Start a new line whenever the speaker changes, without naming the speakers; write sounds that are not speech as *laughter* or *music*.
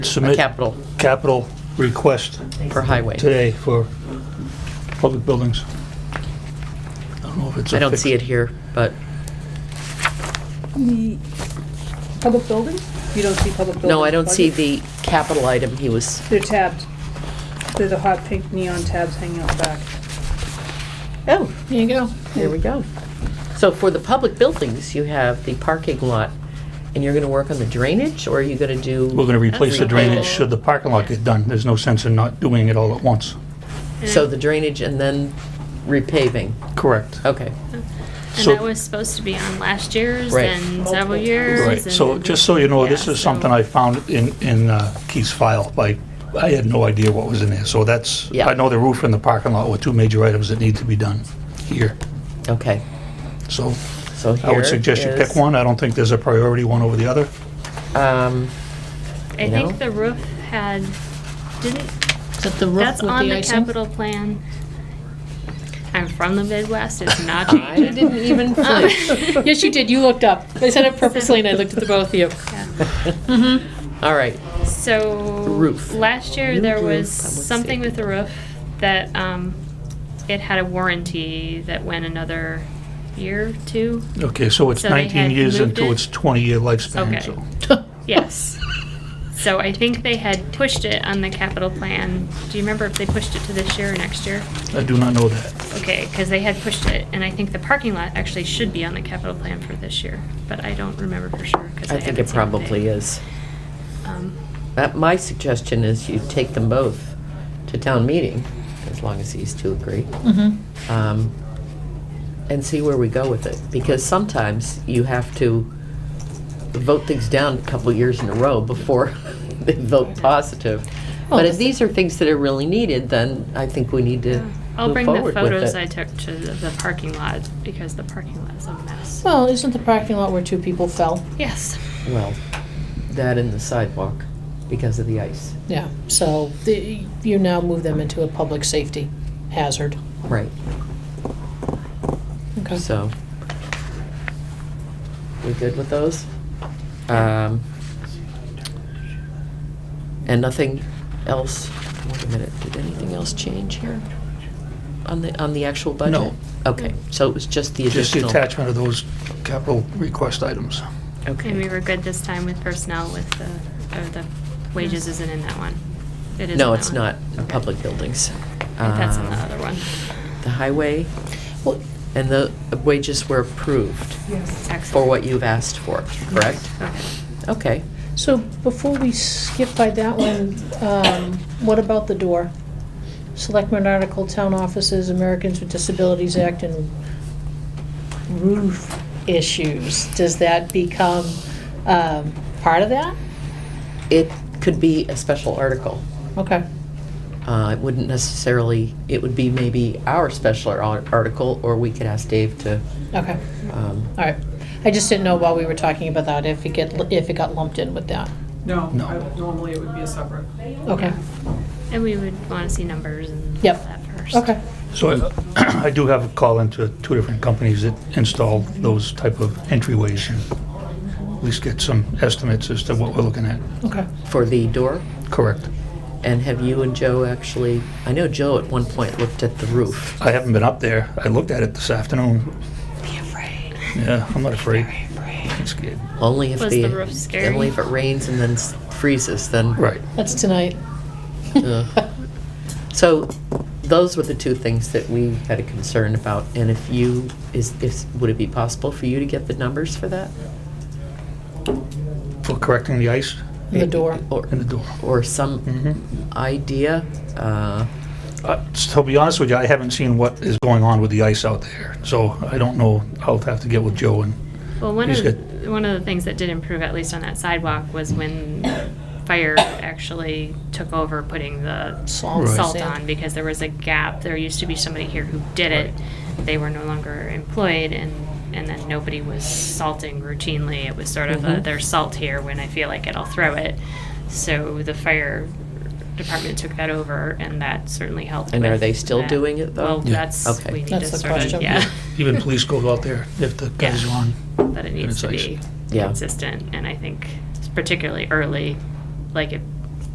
submit
capital
capital request
for highway.
today for public buildings. I don't know if it's a
I don't
fix-
see it here, but,
The public buildings? You don't see public buildings?
no, I don't see
budget?
the capital item he was,
They're tabbed. They're the hot pink neon tabs hanging out back.
oh,
There you go.
there we go. So for the public buildings, you have the parking lot, and you're gonna work on the drainage, or are you gonna
We're
do,
going to replace the
That's
drainage
okay.
should the parking lot get done. There's no sense in not doing it all at once.
so the drainage and then repaving?
Correct.
Okay,
And
So-
that was supposed to be on last year's
Right.
and
Multiple
several
times.
years.
Right, so
and-
just so you know,
yeah,
this is
so-
something I found in, in uh, Keith's file, like, I had no idea what was in there, so that's,
Yeah.
I know the roof and the parking lot were two major items that need to be done here,
okay,
so
so
I
here
would suggest you pick
is,
one, I don't think there's a priority one over the other.
Um,
I
you know?
think the roof had, didn't,
Is that the roof
that's
with
on the
icing?
capital plan. I'm from the Midwest, it's not
I
changing. *laughs*
didn't even finish.
*laughs* Yes, you did. You looked up. I said it purposely, and I looked at the both of you.
All right,
So.
Roof.
Last year,
New
there
roof,
was
public
something with the roof that, um, it had a warranty that went another year, two,
Okay, so it's
So they
19
had
years
moved
into
it?
its 20-year lifespan,
Okay.
so.
Yes. *laughs* So I think they had pushed it on the capital plan. Do you remember if they pushed it to this year or next year?
I do not know that.
Okay, because they had pushed it, and I think the parking lot actually should be on the capital plan for this year, but I don't remember for sure, because I
I think it
haven't seen what
probably
they-
is.
um,
Uh, My suggestion is you take them both to town meeting, as long as these two agree, um, and see where we go with it. Because sometimes you have to vote things down a couple years in a row before *laughs* they vote positive.
Oh,
But if these are things that are really needed, then I think we need to
yeah. I'll
move
bring the
forward with
photos
it.
I took to the the parking lot, because the parking lot is a mess.
Well, isn't the parking lot where two people fell?
Yes.
Well, that and the sidewalk because of the ice.
Yeah. So the, you now move them into a public safety hazard.
Right.
Okay.
So, we good with those? Um, And nothing else, wait a minute, did anything else change here? On the, on the actual budget?
No.
Okay, so it was just the
Just the
additional?
attachment of those capital request items.
And we
Okay.
were good this time with personnel with the, or the wages isn't in that one. It is in
No,
that
it's
one.
not, in
Okay.
public buildings.
I think That's in the
Um,
other one.
The highway
Well,
and the wages were approved for
Excellent.
what you've asked for, correct?
Okay.
Okay.
so before we skip by that one, um, what about the door? Selectmen article, town offices, Americans with Disabilities Act, and roof issues. Does that become um, part of that?
It could be a special article.
Okay.
Uh, It wouldn't necessarily, it would be maybe our special ar- article, or we could ask Dave to,
Okay.
um,
All right. I just didn't know while we were talking about that if it get, if it got lumped in with that.
No,
No.
I- normally it would be a separate.
Okay.
And we would want to see numbers and all
Yep.
that first.
Okay.
So uh, *clears throat* I I do have a call into two different companies that install those type of entryways and at least get some estimates as to what we're looking at.
Okay.
for the door.
Correct.
And have you and Joe actually, I know Joe at one point looked at the roof.
I haven't been up there. I looked at it this afternoon. Be afraid. Yeah, I'm not afraid. I'm scared.
Only if
Was
the,
the roof scary?
only if it rains and then s- freezes, then.
Right.
That's tonight.
uh, So those were the two things that we had a concern about. And if you, is, is, would it be possible for you to get the numbers for that?
For correcting the ice
The door.
Or,
in the door.
or some
Mhm.
idea? uh,
Uh, To be honest with you, I haven't seen what is going on with the ice out there, so I don't know. I'll have to get with Joe and,
Well, one
He's
of, one of the things that did improve, at least on that sidewalk, was when fire actually took over putting the
Salt.
Right.
salt
Sand.
on because there was a gap. There used to be somebody here who did it. They were no longer employed and, and then nobody was salting routinely. It was sort of a,
Mhm.
there's salt here. When I feel like it, I'll throw it. So the fire department took that over and that certainly helped.
And are
with
they still
that.
doing it, though?
Well,
Yeah.
that's,
Okay.
we need to
That's the
sort of,
question.
yeah.
*laughs*
*laughs*
even police goes out there if the guys are
Yeah.
on.
that it needs to
it's ice.
be
Yeah.
consistent, and I think particularly early, like if